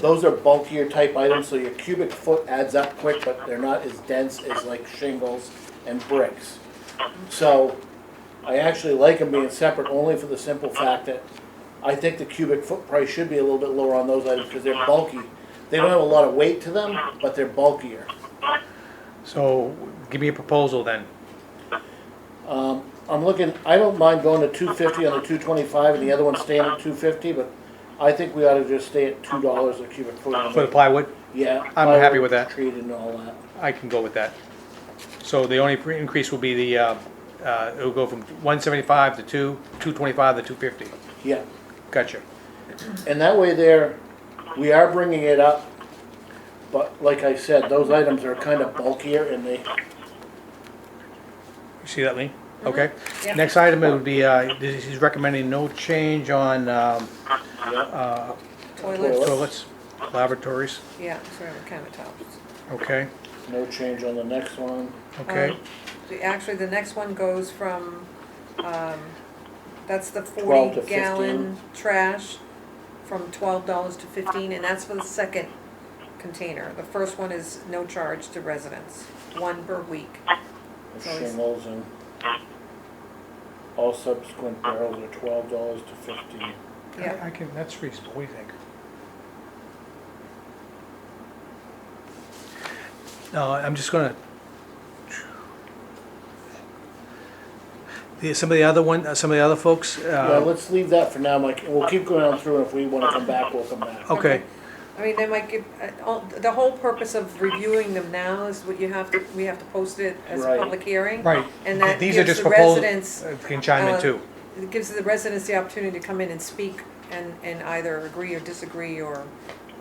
Those are bulkier type items, so your cubic foot adds up quick, but they're not as dense as like shingles and bricks. So I actually like them being separate only for the simple fact that I think the cubic foot price should be a little bit lower on those items because they're bulky. They don't have a lot of weight to them, but they're bulkier. So give me a proposal then. I'm looking, I don't mind going to two fifty on the two twenty-five and the other one staying at two fifty, but I think we ought to just stay at two dollars a cubic foot. on For the the- plywood, Yeah. I'm plywood happy with that. Treated and all that. I can go with that. So the only pre- increase will be the, uh, uh, it'll go from 175 to 2, 225 to 250. Yeah. Gotcha. And that way there, we are bringing it up, but like I said, those items are kind of bulkier and they, You see that, Lee? Okay. Mm-hmm. Yeah. Next item would be, uh, this- he's recommending no change on um, uh, Toilets, Toilet. toilets, lavatories, yeah, ceramic countertops. okay, no change on the next one. okay. Um, the- Actually, the next one goes from, um, that's the 12 to forty gallon trash from twelve dollars to fifteen, and that's for the second container. The first one is no charge to residents, one per week. of Always. Shingles and all subsequent barrels are twelve dollars to fifteen. Yeah, I can, that's reasonable, what do you think? No, I'm just gonna. The, some of the other one, uh, some of the other folks, Yeah, uh, let's leave that for now, Mike, and we'll keep going on through, and if we wanna come back, we'll come back. okay, I mean, they might give, uh, all- the whole purpose of reviewing them now is what you have to, we have to post it as a Right. public hearing. right. And that These are gives just the proposals. residents Can chime in uh, too. It gives the residents the opportunity to come in and speak and, and either agree or disagree or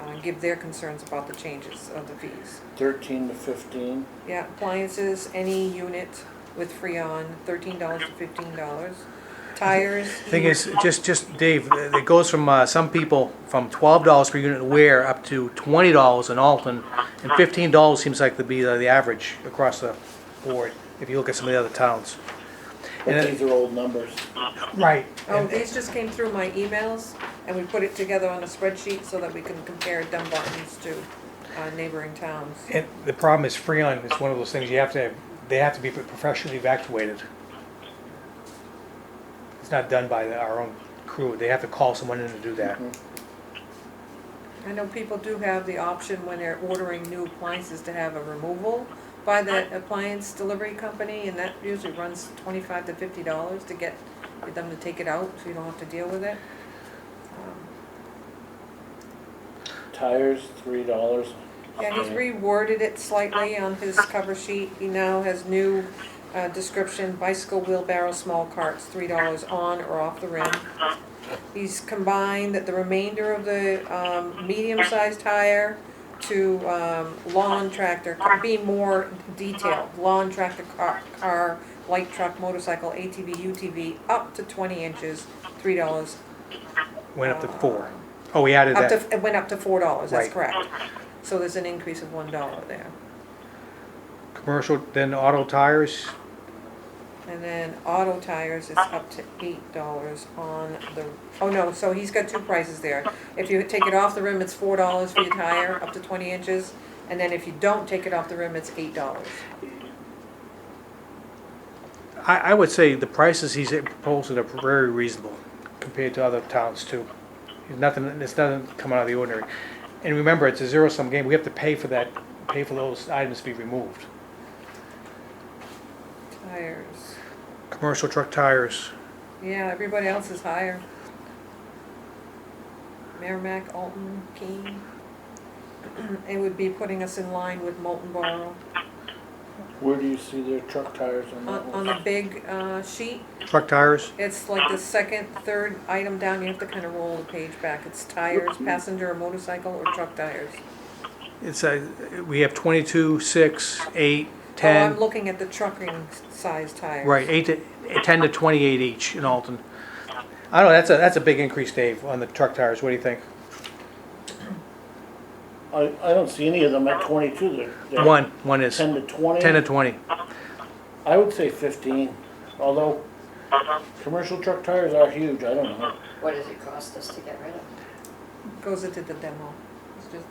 uh, give their concerns about the changes of the fees. Thirteen to fifteen, Yeah, appliances, any unit with Freon, thirteen dollars to fifteen dollars. Tires. e-, Thing is, just, just, Dave, it goes from, uh, some people from twelve dollars per unit wear up to twenty dollars in Alton, and fifteen dollars seems like to be uh, the average across the board, if you look at some of the other towns. And uh, but it- these are old numbers. Right. Oh, these just came through my emails and we put it together on a spreadsheet so that we can compare Dunbarton's to uh, neighboring towns. And the problem is Freon is one of those things you have to, have- they have to be professionally evacuated. It's not done by the- our own crew, they have to call someone in to do that. I know people do have the option when they're ordering new appliances to have a removal by that appliance delivery company, and that usually runs twenty-five to fifty dollars to get them to take it out, so you don't have to deal with it. Um, Tires, three dollars. Yeah, he's reworded it slightly on his cover sheet, he now has new, uh, description, bicycle wheelbarrow, small carts, three dollars on or off the rim. He's combined the remainder of the um, medium-sized tire to um, lawn tractor, be more detailed, lawn tractor, car, car, light truck, motorcycle, ATV, UTV, up to twenty inches, three dollars. Went up to four. Oh, we added Up to, that. it went up to four dollars, that's Right. correct. So there's an increase of one dollar there. Commercial, then auto tires, And then auto tires is up to eight dollars on the, oh no, so he's got two prices there. If you take it off the rim, it's four dollars for your tire, up to twenty inches, and then if you don't take it off the rim, it's eight dollars. I, I would say the prices he's proposing are very reasonable compared to other towns too. There's Nothing, it's nothing coming out of the ordinary. And remember, it's a zero-sum game, we have to pay for that, pay for those items to be removed. Tires, Commercial truck tires, yeah, everybody else is higher. Merrimack, Alton, Keene. It would be putting us in line with Molten Borough. Where do you see their truck tires on On, that one? on the big, uh, sheet, truck tires, It's like the second, third item down, you have to kind of roll the page back. It's tires, passenger or motorcycle or truck tires. Oh, it's a, we have twenty-two, six, eight, Oh, I'm ten, looking at the trucking size tires. right, eight to, ten to twenty-eight each in Alton. I don't know, that's a, that's a big increase, Dave, on the truck tires, what do you think? I, I don't see any of them at twenty-two, they're. they're One, one is, Ten to twenty. ten to twenty. I would say fifteen, although commercial truck tires are huge, I don't know. What does it cost us to get rid of? Goes into the demo. it's just